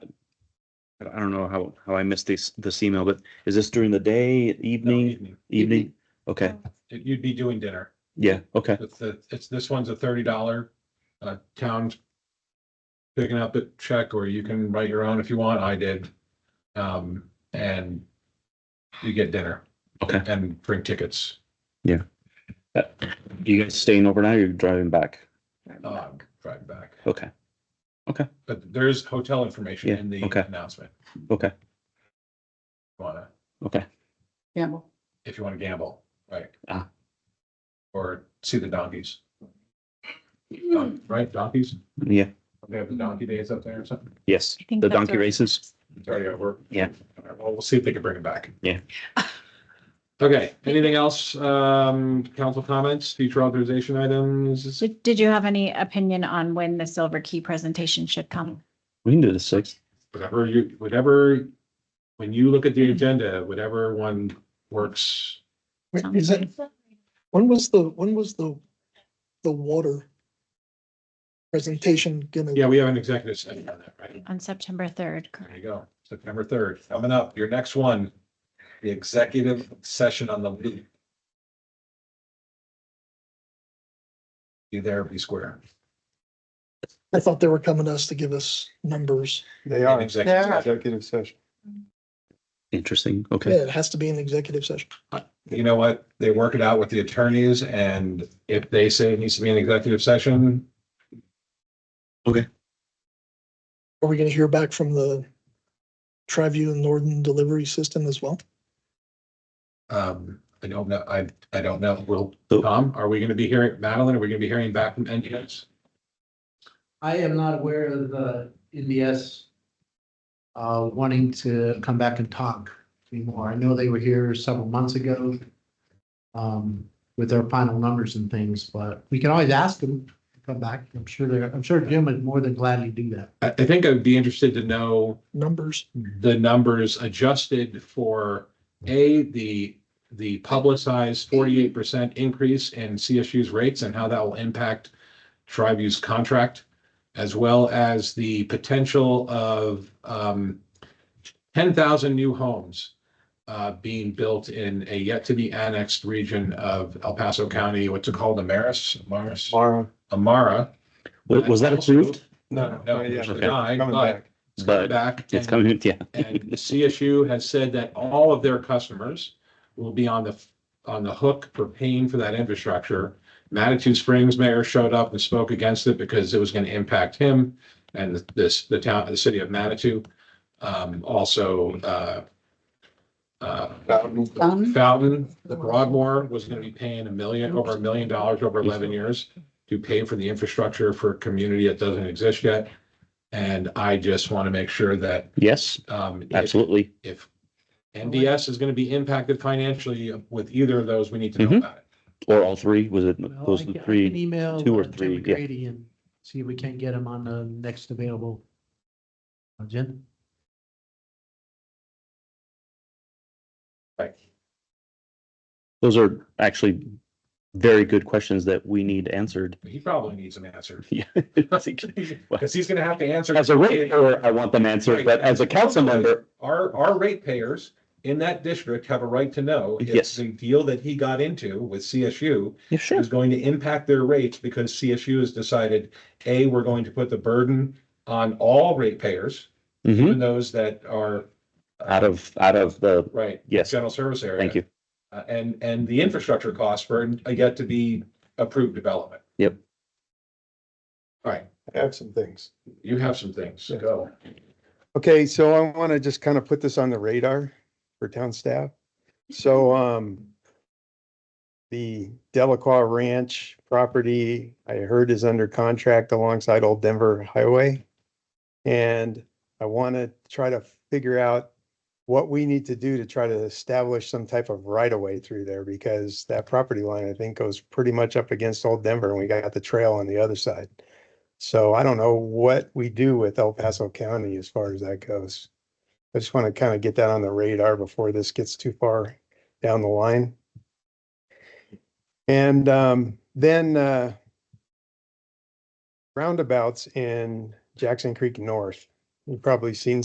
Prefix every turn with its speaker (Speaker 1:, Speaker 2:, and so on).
Speaker 1: I don't know how, how I missed this, this email, but is this during the day,
Speaker 2: No,
Speaker 1: evening, evening? Okay,
Speaker 2: You'd be doing dinner.
Speaker 1: yeah, okay,
Speaker 2: It's the, it's, this one's a thirty dollar, uh, town. Picking up a check or you can write your own if you want. I did. Um, and you get dinner
Speaker 1: okay.
Speaker 2: and bring tickets.
Speaker 1: Uh, You guys staying overnight or you're driving back?
Speaker 2: Uh, drive back.
Speaker 1: Okay,
Speaker 2: But there's hotel information
Speaker 1: Yeah,
Speaker 2: in the
Speaker 1: okay.
Speaker 2: announcement.
Speaker 1: okay,
Speaker 2: Wanna,
Speaker 1: okay. Um,
Speaker 3: Campbell.
Speaker 2: if you wanna gamble, right?
Speaker 1: Ah.
Speaker 2: Or see the donkeys, Don- right? Donkeys?
Speaker 1: Yeah,
Speaker 2: They have the donkey days up there or something.
Speaker 1: yes, the donkey races.
Speaker 2: It's already over.
Speaker 1: Yeah.
Speaker 2: All right, Well, we'll see if they can bring it back.
Speaker 1: Yeah.
Speaker 2: Okay, anything else, um, council comments, future authorization items?
Speaker 3: So Did you have any opinion on when the silver key presentation should come?
Speaker 1: We can do the sixth.
Speaker 2: Whatever you, whatever, when you look at the agenda, whatever one works.
Speaker 4: Wait, Is that, when was the, when was the, the water presentation gonna?
Speaker 2: Yeah, we have an executive session on that, right?
Speaker 3: On September third.
Speaker 2: There you go, September third, coming up, your next one, the executive session on the loop. Be there, be square.
Speaker 4: I thought they were coming to us to give us numbers.
Speaker 5: They
Speaker 2: An
Speaker 5: are,
Speaker 2: executive session.
Speaker 5: executive session.
Speaker 1: Interesting,
Speaker 4: Yeah,
Speaker 1: okay.
Speaker 4: it has to be an executive session.
Speaker 2: you know what, they work it out with the attorneys and if they say it needs to be an executive session,
Speaker 4: Are we gonna hear back from the Triview and Northern Delivery System as well?
Speaker 2: um, I don't know, I, I don't know, will,
Speaker 1: So-
Speaker 2: Tom, are we gonna be hearing, Madeline, are we gonna be hearing back from NGOs?
Speaker 6: I am not aware of uh, the NBS uh, wanting to come back and talk anymore. I know they were here several months ago um, with their final numbers and things, but we can always ask them to come back. I'm sure they're, I'm sure Jim would more than gladly do that.
Speaker 2: I, I think I'd be interested to know
Speaker 4: Numbers?
Speaker 2: the numbers adjusted for, A, the, the publicized forty-eight percent increase in CSU's rates and how that will impact Tribu's contract, as well as the potential of um ten thousand new homes uh being built in a yet-to-be annexed region of El Paso County, what's it called, Amaris? Amaris?
Speaker 5: Tomorrow.
Speaker 2: Amara.
Speaker 1: Was, was that approved?
Speaker 5: No,
Speaker 2: No,
Speaker 5: no,
Speaker 2: it
Speaker 5: yeah,
Speaker 2: was
Speaker 1: Okay.
Speaker 2: denied,
Speaker 5: coming
Speaker 2: but
Speaker 5: back.
Speaker 2: it's coming
Speaker 1: But
Speaker 2: back.
Speaker 1: it's
Speaker 2: and-
Speaker 1: coming, yeah.
Speaker 2: and CSU has said that all of their customers will be on the, on the hook for paying for that infrastructure. Manitou Springs mayor showed up and spoke against it because it was going to impact him and this, the town, the city of Manitou. Um, also, uh, uh,
Speaker 5: Fountain.
Speaker 2: Fountain, the Broadmoor was gonna be paying a million, over a million dollars over eleven years to pay for the infrastructure for a community that doesn't exist yet. And I just want to make sure that,
Speaker 1: Yes,
Speaker 2: um, if-
Speaker 1: absolutely.
Speaker 2: if NDS is gonna be impacted financially with either of those, we need to know
Speaker 1: Mhm.
Speaker 2: about it.
Speaker 1: Or all three, was it,
Speaker 6: Well,
Speaker 1: those
Speaker 6: I
Speaker 1: the
Speaker 6: can- I can
Speaker 1: three?
Speaker 6: Email
Speaker 1: two or
Speaker 6: uh, Jim
Speaker 1: three, yeah.
Speaker 6: McGrady and see if we can get him on the next available Uh, agenda.
Speaker 1: Those are actually very good questions that we need answered.
Speaker 2: He probably needs an answer.
Speaker 1: Yeah.
Speaker 2: Cause he's gonna have to answer.
Speaker 1: As a ratepayer, I want them answered, but as a council member,
Speaker 2: Our, our ratepayers in that district have a right to know if
Speaker 1: Yes.
Speaker 2: the deal that he got into with CSU
Speaker 1: yeah, sure.
Speaker 2: is going to impact their rates because CSU has decided, A, we're going to put the burden on all ratepayers,
Speaker 1: hmm
Speaker 2: even those that are. uh,
Speaker 1: out of, out of the,
Speaker 2: Right,
Speaker 1: yes,
Speaker 2: general service area.
Speaker 1: thank you.
Speaker 2: Uh, And, and the infrastructure costs for a yet to be approved development.
Speaker 1: Yep.
Speaker 2: All right,
Speaker 5: I have some things.
Speaker 2: you have some things, go.
Speaker 5: Okay, so I want to just kind of put this on the radar for town staff. So, um, the Delacroix Ranch property, I heard is under contract alongside Old Denver Highway. And I want to try to figure out what we need to do to try to establish some type of right of way through there because that property line, I think, goes pretty much up against Old Denver and we got the trail on the other side. So I don't know what we do with El Paso County as far as that goes. I just want to kind of get that on the radar before this gets too far down the line. And um, then uh, roundabouts in Jackson Creek North. You've probably seen